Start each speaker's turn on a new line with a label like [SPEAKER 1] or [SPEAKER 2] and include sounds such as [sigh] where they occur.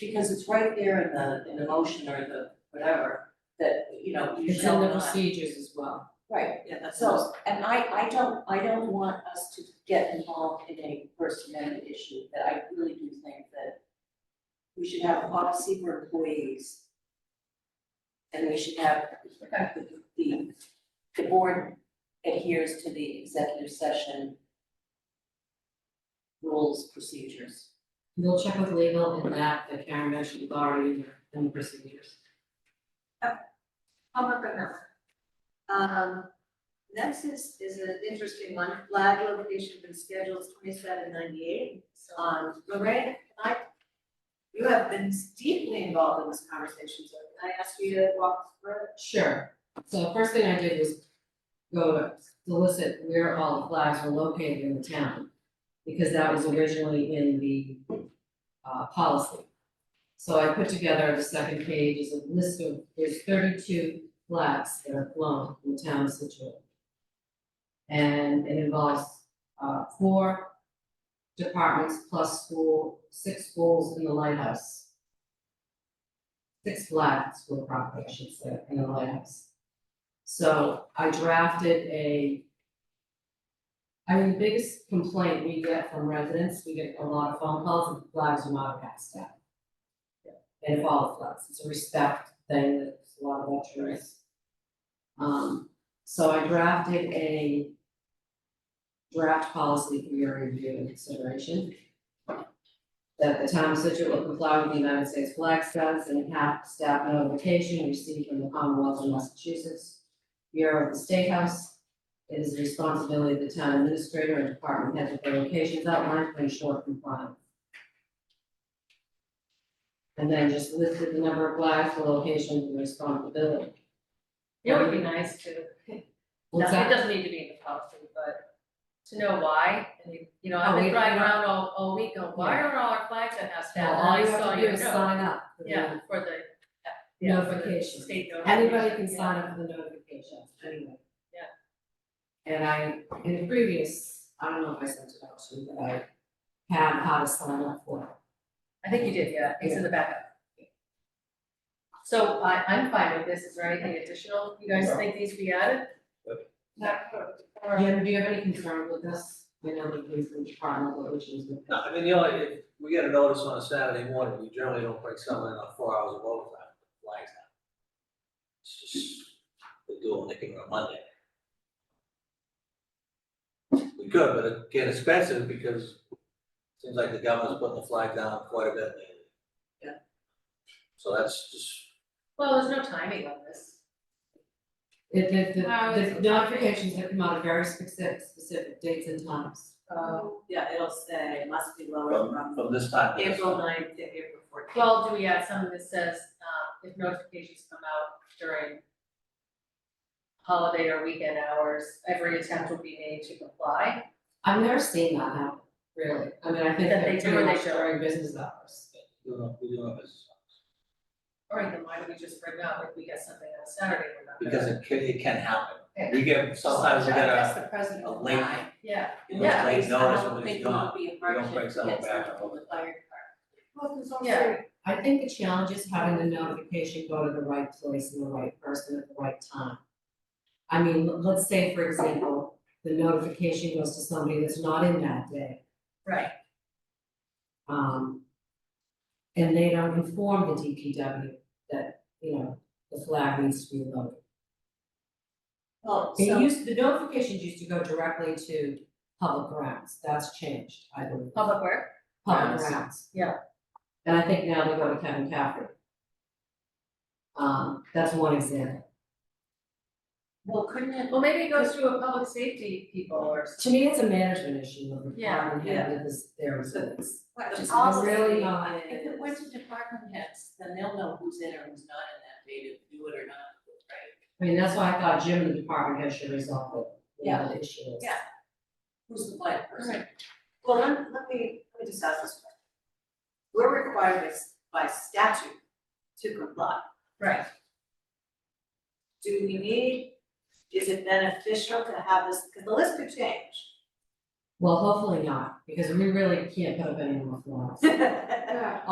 [SPEAKER 1] because it's right there in the, in the motion or the whatever, that, you know, you
[SPEAKER 2] It's
[SPEAKER 1] shall
[SPEAKER 2] in the
[SPEAKER 1] not.
[SPEAKER 2] procedures as well.
[SPEAKER 1] Right,
[SPEAKER 2] Yeah, that's.
[SPEAKER 1] so, and I, I don't, I don't want us to get involved in a First Amendment issue, that I really do think that we should have a policy for employees. And we should have, the, the, the board adheres to the executive session rules, procedures.
[SPEAKER 2] We'll check with legal and that, the Karen mentioned, is already in the- in the procedures.
[SPEAKER 3] I'll work on that one. Um, next is, is an interesting one, flag location for schedules twenty-seven ninety-eight. Um, Lorraine, I, you have been deeply involved in this conversation, so can I ask you to walk through it?
[SPEAKER 2] Sure, so first thing I did was go to solicit where all the flags were located in the town. Because that was originally in the uh policy. So I put together the second page is a list of, there's thirty-two flags that are flown in the town of Situate. And it involves uh four departments plus school, six schools in the lighthouse six flags were property, I should say, in the lighthouse. So I drafted a. I mean, the biggest complaint we get from residents, we get a lot of phone calls and flags are not passed out. And if all the flags, it's a respect thing, that there's a lot of veterans. Um, so I drafted a. Draft policy for your review and consideration that the town of Situate will comply with the United States flag status and half staff notification received from the Commonwealth of Massachusetts Bureau of the State House. It is the responsibility of the town administrator and department heads of the locations outlined to ensure compliance. And then just listed the number of flags, the location, and the responsibility.
[SPEAKER 4] It would be nice to, no,
[SPEAKER 2] What's that?
[SPEAKER 4] it doesn't need to be in the policy, but to know why, and you, you know, I've
[SPEAKER 2] Oh, we-
[SPEAKER 4] been driving around all, all week, going, why are all our flags at half staff?
[SPEAKER 2] Well, all you
[SPEAKER 4] And I saw
[SPEAKER 2] have to do is
[SPEAKER 4] know.
[SPEAKER 2] sign up for the
[SPEAKER 4] Yeah, for the, yeah, for the
[SPEAKER 2] notification.
[SPEAKER 4] state notification.
[SPEAKER 2] Anybody can
[SPEAKER 4] yeah.
[SPEAKER 2] sign up for the notification, anyway.
[SPEAKER 4] Yeah.
[SPEAKER 2] And I, in the previous, I don't know if I sent it out to you, but I had how to sign up for it.
[SPEAKER 4] I think you did, yeah, it's in the backup. So I, I'm fine with this, is there anything additional you guys
[SPEAKER 5] No.
[SPEAKER 4] think needs to be added?
[SPEAKER 2] Jim, do you have any concern with this? I know the police and department, what which is.
[SPEAKER 5] No, I mean, the only, if we get a notice on a Saturday morning, we generally don't break something on four hours of overtime, but flags out. It's just, they do it, they can on Monday. We could, but it get expensive because it seems like the government's putting the flag down quite a bit lately.
[SPEAKER 4] Yeah.
[SPEAKER 5] So that's just,
[SPEAKER 4] Well, there's no timing on this.
[SPEAKER 2] It, the,
[SPEAKER 4] How
[SPEAKER 2] the, the notifications that come out are very specific, specific dates and times.
[SPEAKER 3] Um, yeah, it'll say it must be
[SPEAKER 5] from, from this time to this time.
[SPEAKER 3] ninth to April fourteenth.
[SPEAKER 4] Well, do we add something that says, uh, if notifications come out during holiday or weekend hours, every attempt will be made to comply?
[SPEAKER 2] I've never seen that happen, really. I mean, I think
[SPEAKER 4] That they
[SPEAKER 2] they're
[SPEAKER 4] do or
[SPEAKER 2] pretty
[SPEAKER 4] they
[SPEAKER 2] much
[SPEAKER 4] don't?
[SPEAKER 2] during business hours.
[SPEAKER 5] We don't, we don't have this.
[SPEAKER 4] All right, then why don't we just bring up if we get something on Saturday, we're not gonna.
[SPEAKER 5] Because it can, it can happen. We get, sometimes we get
[SPEAKER 1] That's
[SPEAKER 5] a,
[SPEAKER 1] the president
[SPEAKER 5] a
[SPEAKER 1] of
[SPEAKER 5] late,
[SPEAKER 4] Yeah,
[SPEAKER 5] you know, late notice when it's gone.
[SPEAKER 1] I don't think it would be
[SPEAKER 5] don't
[SPEAKER 1] emergent
[SPEAKER 5] break
[SPEAKER 1] to
[SPEAKER 5] something
[SPEAKER 1] get
[SPEAKER 5] back
[SPEAKER 1] something
[SPEAKER 5] up.
[SPEAKER 1] from the fire department.
[SPEAKER 3] Well, there's
[SPEAKER 4] Yeah.
[SPEAKER 2] I think the challenge is having the notification go to the right place and the right person at the right time. I mean, l- let's say, for example, the notification goes to somebody that's not in that day,
[SPEAKER 4] right,
[SPEAKER 2] um. And they don't inform the DPW that, you know, the flag needs to be lowered.
[SPEAKER 1] Well,
[SPEAKER 2] It
[SPEAKER 1] so-
[SPEAKER 2] used, the notifications used to go directly to public grounds, that's changed, I believe.
[SPEAKER 4] public work,
[SPEAKER 2] public
[SPEAKER 4] Grounds.
[SPEAKER 2] grounds.
[SPEAKER 4] Yeah.
[SPEAKER 2] And I think now they go to Kevin Caffrey. Um, that's one example.
[SPEAKER 1] well, couldn't it
[SPEAKER 4] well, maybe it goes through a public safety people or. s-
[SPEAKER 2] To me, it's a management issue of the
[SPEAKER 4] Yeah,
[SPEAKER 2] department head with this, their results.
[SPEAKER 3] What
[SPEAKER 2] Just
[SPEAKER 3] policy
[SPEAKER 2] really not-
[SPEAKER 3] it
[SPEAKER 1] If it
[SPEAKER 3] is.
[SPEAKER 1] went to department heads, then they'll know who's in or who's not in that data, do it or not, right?
[SPEAKER 2] I mean, that's why I thought Jim and the department head should resolve it, you know, the issue is.
[SPEAKER 1] Yeah. Who's the flag person?
[SPEAKER 3] Well, let, let me, let me just ask this question. We're required by s- by statute to comply.
[SPEAKER 4] Right,
[SPEAKER 3] Do we need, is it beneficial to have this, because the list could change. [laughs]
[SPEAKER 1] [laughs]
[SPEAKER 2] Well, hopefully not, because we really can't put up any more flags.